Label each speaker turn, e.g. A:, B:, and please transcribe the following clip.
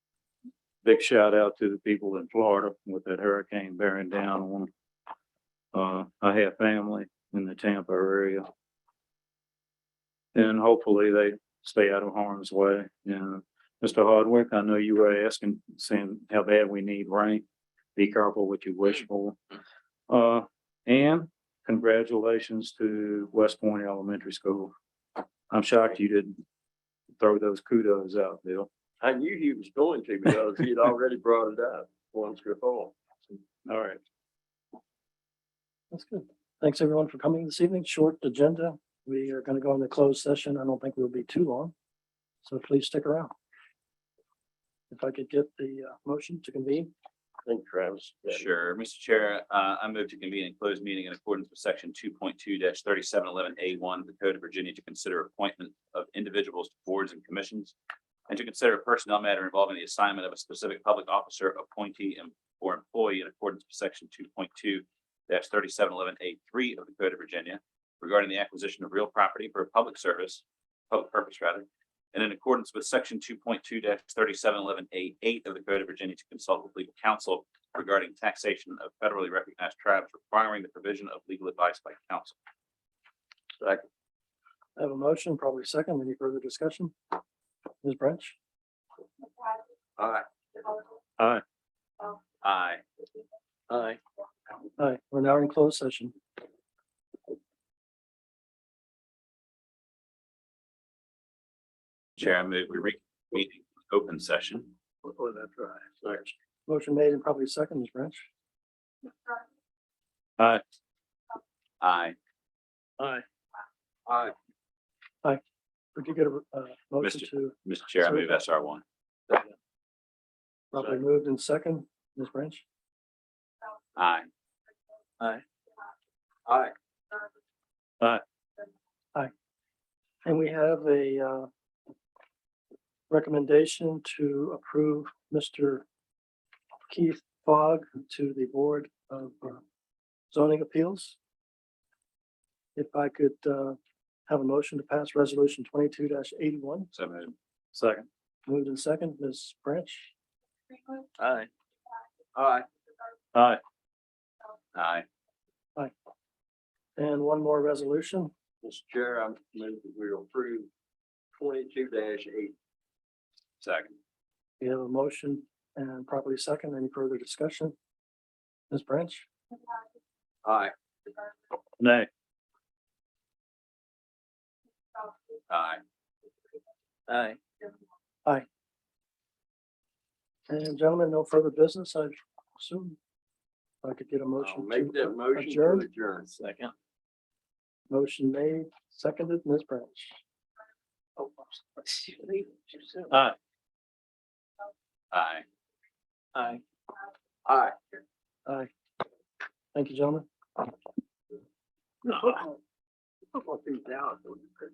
A: big shout out to the people in Florida with that hurricane bearing down on. 'em. Uh, I have family in the Tampa area. And hopefully they stay out of harm's way. And Mr. Hardwick, I know you were asking, saying how bad we need rain. Be careful what you wish for. Uh, and congratulations to West Point Elementary School. I'm shocked you didn't throw those kudos out, Bill.
B: I knew he was going to because he had already brought it up once before.
A: All right.
C: That's good. Thanks, everyone, for coming this evening. Short agenda. We are going to go into closed session. I don't think we'll be too long. So please stick around. If I could get the uh, motion to convene,
B: Thank you, Travis.
D: Sure. Mr. Chair, uh, I move to convene a closed meeting in accordance with section two point two thirty-seven eleven A one of the Code of Virginia to consider appointment of individuals to boards and commissions and to consider a personnel matter involving the assignment of a specific public officer, appointee, and or employee in accordance with section two point two thirty-seven eleven A three of the Code of Virginia regarding the acquisition of real property for public service, public purpose rather, and in accordance with section two point two thirty-seven eleven A eight of the Code of Virginia to consult with legal counsel regarding taxation of federally recognized tribes requiring the provision of legal advice by counsel.
C: I have a motion, probably second. Any further discussion? Ms. Branch?
B: All right.
D: Aye.
B: Aye.
C: Hi, we're now in closed session.
D: Chair, I move we reconvene in open session.
B: Oh, that's right. Thanks.
C: Motion made and probably second, Ms. Branch.
D: Aye.
C: Aye.
B: Aye.
C: Could you get a uh, motion
D: Mr.
C: to
D: Mr. Chair, I move SR one.
C: probably moved in second, Ms. Branch?
D: Aye.
B: Aye.
C: And we have a uh, recommendation to approve Mr. Keith Fogg to the Board of uh, Zoning Appeals. If I could uh, have a motion to pass Resolution twenty-two eighty-one,
D: So moved.
A: Second.
C: moved in second, Ms. Branch.
B: Aye. Aye.
A: Aye.
D: Aye.
C: And one more resolution,
B: Mr. Chair, I move that we approve twenty-two eight.
D: Second.
C: we have a motion and properly second, any further discussion? Ms. Branch?
B: Aye.
A: Nay.
D: Aye.
B: Aye.
C: And gentlemen, no further business, I assume. If I could get a
B: I'll
C: motion.
B: make
C: to
B: that motion to
C: adjourn.
B: adjourn.
D: Second.
C: Motion made, seconded, Ms. Branch.
A: Aye.
D: Aye.
C: Aye.
B: Aye.
C: Aye. Thank you, gentlemen.
B: Couple of things out.